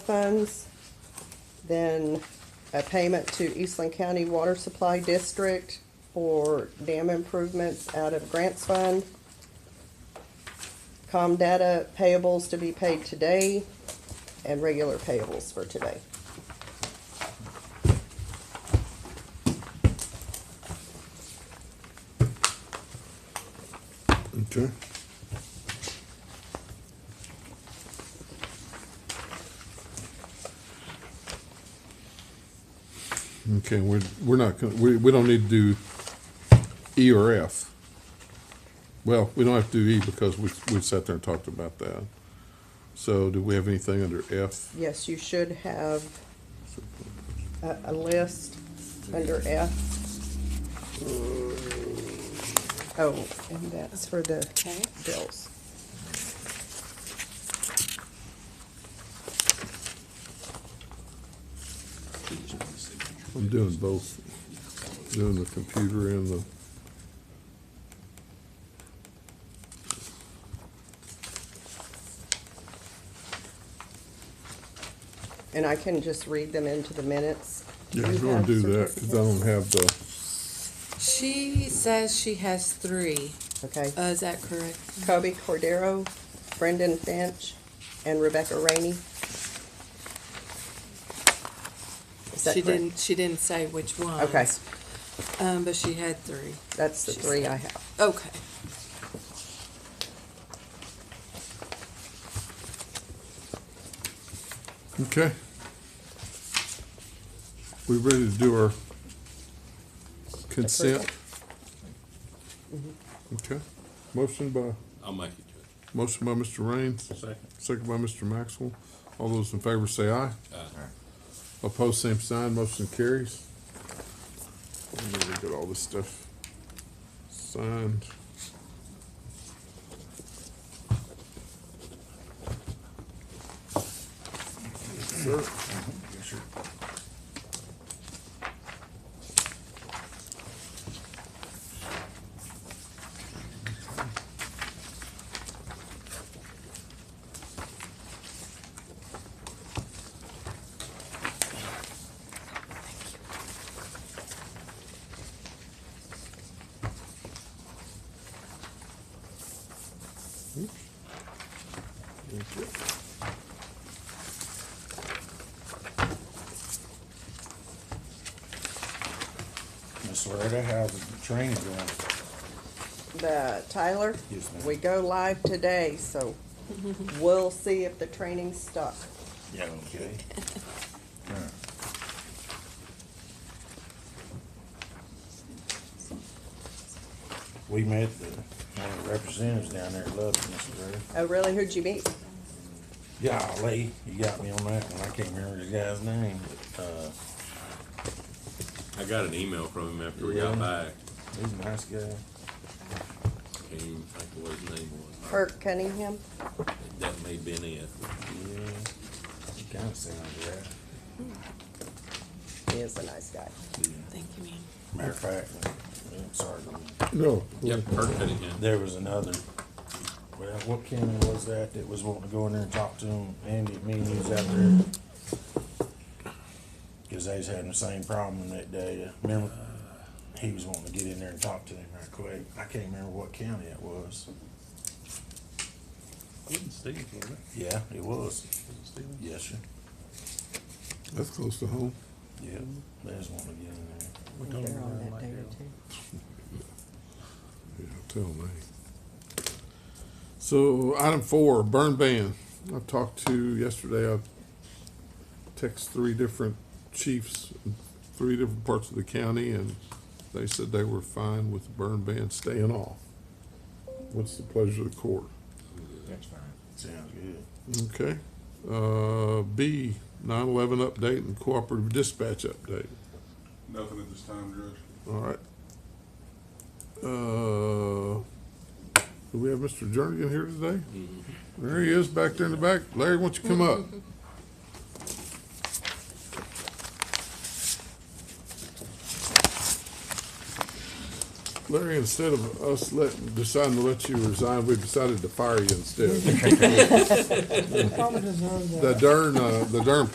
funds, then a payment to Eastland County Water Supply District for dam improvements out of grants fund. Com data payables to be paid today and regular payables for today. Okay. Okay, we're, we're not, gonna- we, we don't need to do E or F. Well, we don't have to do E because we, we sat there and talked about that. So do we have anything under F? Yes, you should have a, a list under F. Uh, Oh, and that's for the Okay. bills. I'm doing both, doing the computer and the. And I can just read them into the minutes. Yeah, You I'm gonna have do that, cause I don't have the, She says she has three. Okay. Uh, is that correct? Kobe Cordero, Brendan Finch, and Rebecca Rainey. Is that She correct? didn't, she didn't say which ones. Okay, Um, but she had three. that's the She three said- I have. Okay. okay. We ready to do our consent? Okay, motion by, I'll make it, Judge. motion by Mr. Raines, Second. second by Mr. Maxwell. All those in favor say aye. Aye. Opposed, same sign, motion carries. I'm gonna get all this stuff signed. Sir, Miss Loretta, how's the training going? The Tyler, Yes, ma'am. we go live today, so we'll see if the training's stuck. Yeah, okay. We met the, one of the representatives down there at Lubbock, Miss Loretta. Oh, really? Who'd you meet? Yeah, Lee, you got me on that one. I can't remember the guy's name, but, uh, I got an email from him after we got Yeah. back. he's a nice guy. Can't even think of what his name was. Kirk Cunningham? That may have been it. Yeah, he kinda sounds right. He is a nice guy. Thank you, ma'am. Matter of fact, I'm sorry, no. Yep, Kirk Cunningham. there was another, well, what county was that that was wanting to go in there and talk to him? Andy, me and he was out there. Cause they was having the same problem that day, remember? He was wanting to get in there and talk to him right quick. I can't remember what county it was. Yeah, it was. Yes, sir. That's close to home. Yeah, they just wanted to get in there. They're on that day or two. Yeah, tell me. So item four, burn ban. I talked to yesterday, I text three different chiefs, in three different parts of the county, and they said they were fine with the burn ban staying off. What's the pleasure of the court? That's fine. Sounds good. Okay. Uh, B, nine eleven update and cooperative dispatch update. Nothing at this time, Judge. All right. Uh, do we have Mr. Jernigan here today? There he is, back there in the back. Larry, why don't you come up? Larry, instead of us let, deciding to let you resign, we decided to fire you instead. Probably deserve that. The darn, uh, the darn